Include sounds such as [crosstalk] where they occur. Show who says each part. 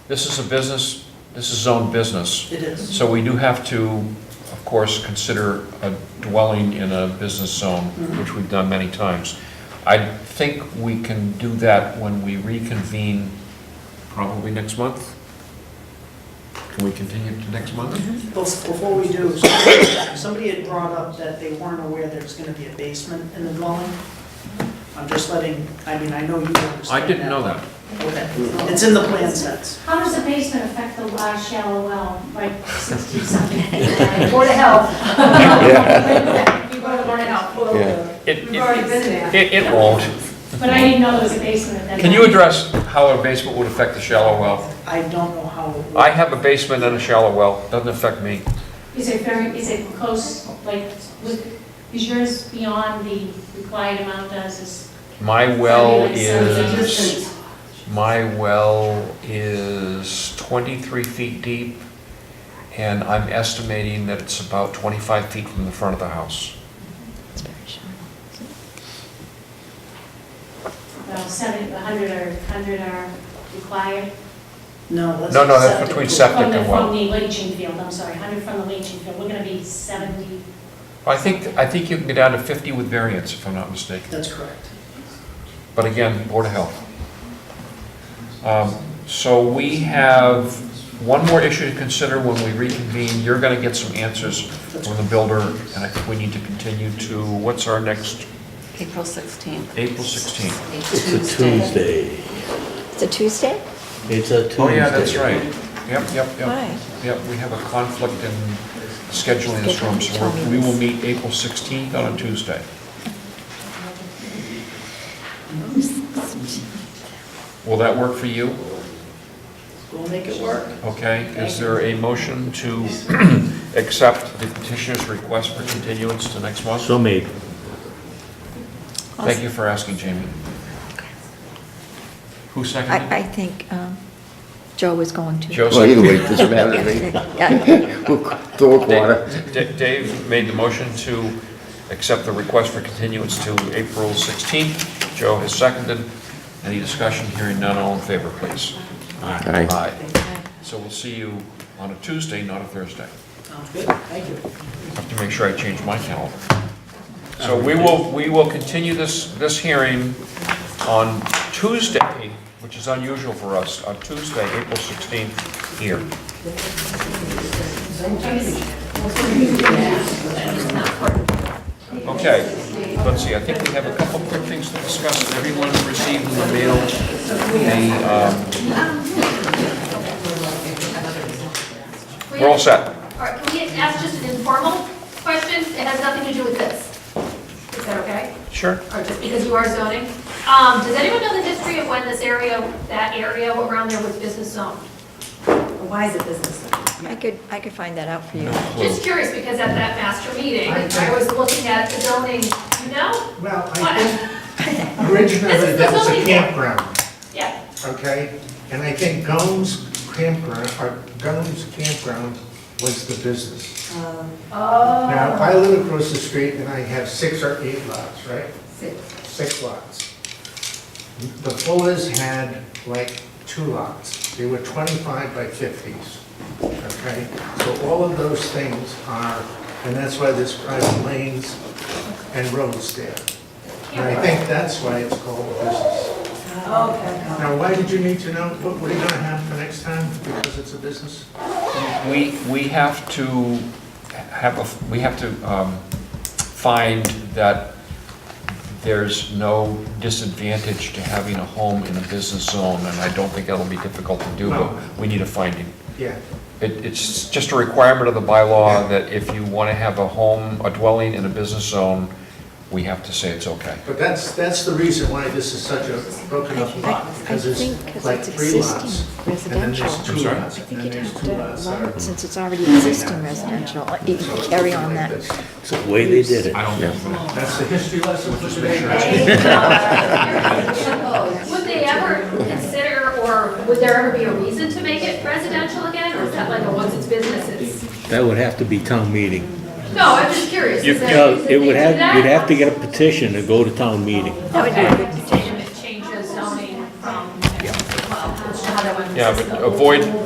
Speaker 1: this is a business, this is zoned business,
Speaker 2: It is.
Speaker 1: so we do have to, of course, consider a dwelling in a business zone,
Speaker 3: Mm-hmm.
Speaker 1: which we've done many times. I think we can do that when we reconvene, probably next month? Can we continue to next month?
Speaker 3: Mm-hmm.
Speaker 2: Bef- Before we do, somebody- somebody had brought up that they weren't aware there's going to be a basement in the dwelling. I'm just letting, I mean, I know you understand that.
Speaker 1: I didn't know that.
Speaker 2: Okay, it's in the plan sets.
Speaker 3: How does the basement affect the large shallow well, like 60 something? Board of Health. [laughs] You go to Board of Health.
Speaker 4: Yeah.
Speaker 1: It,
Speaker 3: We've already been there.
Speaker 1: it, it won't.
Speaker 3: But I didn't know there was a basement at that.
Speaker 1: Can you
Speaker 3: time.
Speaker 1: address how a basement would affect the shallow well?
Speaker 2: I don't know how it
Speaker 1: I
Speaker 2: works.
Speaker 1: have a basement and a shallow well, doesn't affect me.
Speaker 3: Is it very, is it close, like, was- is yours beyond the required amount does is?
Speaker 1: My well
Speaker 3: Something like something
Speaker 1: is,
Speaker 3: distance.
Speaker 1: my well is 23 feet deep, and I'm estimating that it's about 25 feet from the front of the house.
Speaker 3: Well, 70, 100 or 100 are required?
Speaker 2: No, that's.
Speaker 1: No, no, that's between sep- Septic
Speaker 3: From the,
Speaker 1: and well.
Speaker 3: from the leaching field, I'm sorry, 100 from the leaching field, we're going to be 70.
Speaker 1: I think, I think you can get down to 50 with variance, if I'm not mistaken.
Speaker 2: That's correct.
Speaker 1: But again, Board of Health. Um, So we have one more issue to consider when we reconvene. You're going to get some answers
Speaker 2: That's
Speaker 1: from the builder, and I think we need to continue to, what's our next,
Speaker 5: April 16th.
Speaker 1: April 16th?
Speaker 4: It's a Tuesday.
Speaker 6: It's a Tuesday?
Speaker 4: It's a Tuesday.
Speaker 1: Oh, yeah, that's right. Yep, yep, yep.
Speaker 6: Why?
Speaker 1: Yep, we have a conflict in scheduling this room, so we're- we will meet April 16th on a Tuesday. Will that work for you?
Speaker 2: We'll make it work.
Speaker 1: Okay, is there a motion to [clears throat] accept the petitioner's request for continuance to next month?
Speaker 4: So made.
Speaker 1: Thank you for asking, Jamie. Who seconded?
Speaker 6: I,
Speaker 1: it?
Speaker 6: I think um, Joe was going to.
Speaker 1: Joe
Speaker 7: Well, either
Speaker 1: seconded
Speaker 7: way, it doesn't matter to me.
Speaker 6: [laughs] Yeah,
Speaker 7: Throw a quarter.
Speaker 1: Da- Da- Dave made the motion to accept the request for continuance to April 16th. Joe has seconded. Any discussion? Hearing none, all in favor, please.
Speaker 7: Aye.
Speaker 1: Aye. So we'll see you on a Tuesday, not a Thursday.
Speaker 2: Sounds good. Thank you.
Speaker 1: I Have to make sure I change my calendar. So we will, we will continue this, this hearing on Tuesday, which is unusual for us, on Tuesday, April 16th, here. Okay, let's see, I think we have a couple quick things to discuss. Everyone received in the mail the, um, we're all set.
Speaker 8: All right, can we ask just an informal question? It has nothing to do with this. Is that okay?
Speaker 1: Sure.
Speaker 8: Or just because you are zoning? Um, does anyone know the history of when this area, that area around there was business zoned? Or Why is it business zoned?
Speaker 6: I could, I could find that out for you.
Speaker 8: Just curious, because at that master meeting, I was looking at the zoning, you know?
Speaker 9: Well,
Speaker 8: What?
Speaker 9: I think originally that was a campground,
Speaker 8: [laughs] Yeah,
Speaker 9: okay? And I think Gomes Campground, or Gomes Campground was the business. Now, if I live across the street and I have six or eight lots, right? Six lots. The Fullers had like two lots. They were 25 by 50s, okay? So all of those things are, and that's why there's private lanes and roads there. And I think that's why it's called a business.
Speaker 8: okay.
Speaker 9: Now, why did you need to know, what, what are you gonna have for next time, because it's a business?
Speaker 1: We, we have to have, a we have to um, find that there's no disadvantage to having a home in a business zone, and I don't think that'll be difficult to do, but
Speaker 9: No.
Speaker 1: we need a finding.
Speaker 9: Yeah,
Speaker 1: It, it's just a requirement of the bylaw that if you want to have a home, a dwelling in a business zone, we have to say it's okay.
Speaker 9: but that's, that's the reason why this is such a broken up
Speaker 6: I- I
Speaker 9: lot, because
Speaker 6: think 'cause
Speaker 9: there's like
Speaker 6: it's
Speaker 9: three lots.
Speaker 6: existing
Speaker 9: And then there's
Speaker 6: residential.
Speaker 9: two
Speaker 1: sorry?
Speaker 9: lots,
Speaker 6: I
Speaker 9: and
Speaker 6: think you'd
Speaker 9: then there's
Speaker 6: have
Speaker 9: two lots that
Speaker 6: to,
Speaker 9: are.
Speaker 6: since it's already existing residential, you could carry on that.
Speaker 4: It's the way they did it.
Speaker 1: I don't think,
Speaker 9: That's the history lesson for today.
Speaker 8: Would they ever consider, or would there ever be a reason to make it residential again? Or is that like a once it's business, it's?
Speaker 4: That would have to be town meeting.
Speaker 8: No, I'm just curious.
Speaker 4: You
Speaker 8: Is that-
Speaker 4: know,
Speaker 8: is
Speaker 4: It would
Speaker 8: they do
Speaker 4: have,
Speaker 8: that?
Speaker 4: you'd have to get a petition to go to town meeting.
Speaker 6: That would be a good petition.
Speaker 8: It changes zoning from, well, I don't know how that one-
Speaker 1: Yeah, but avoid,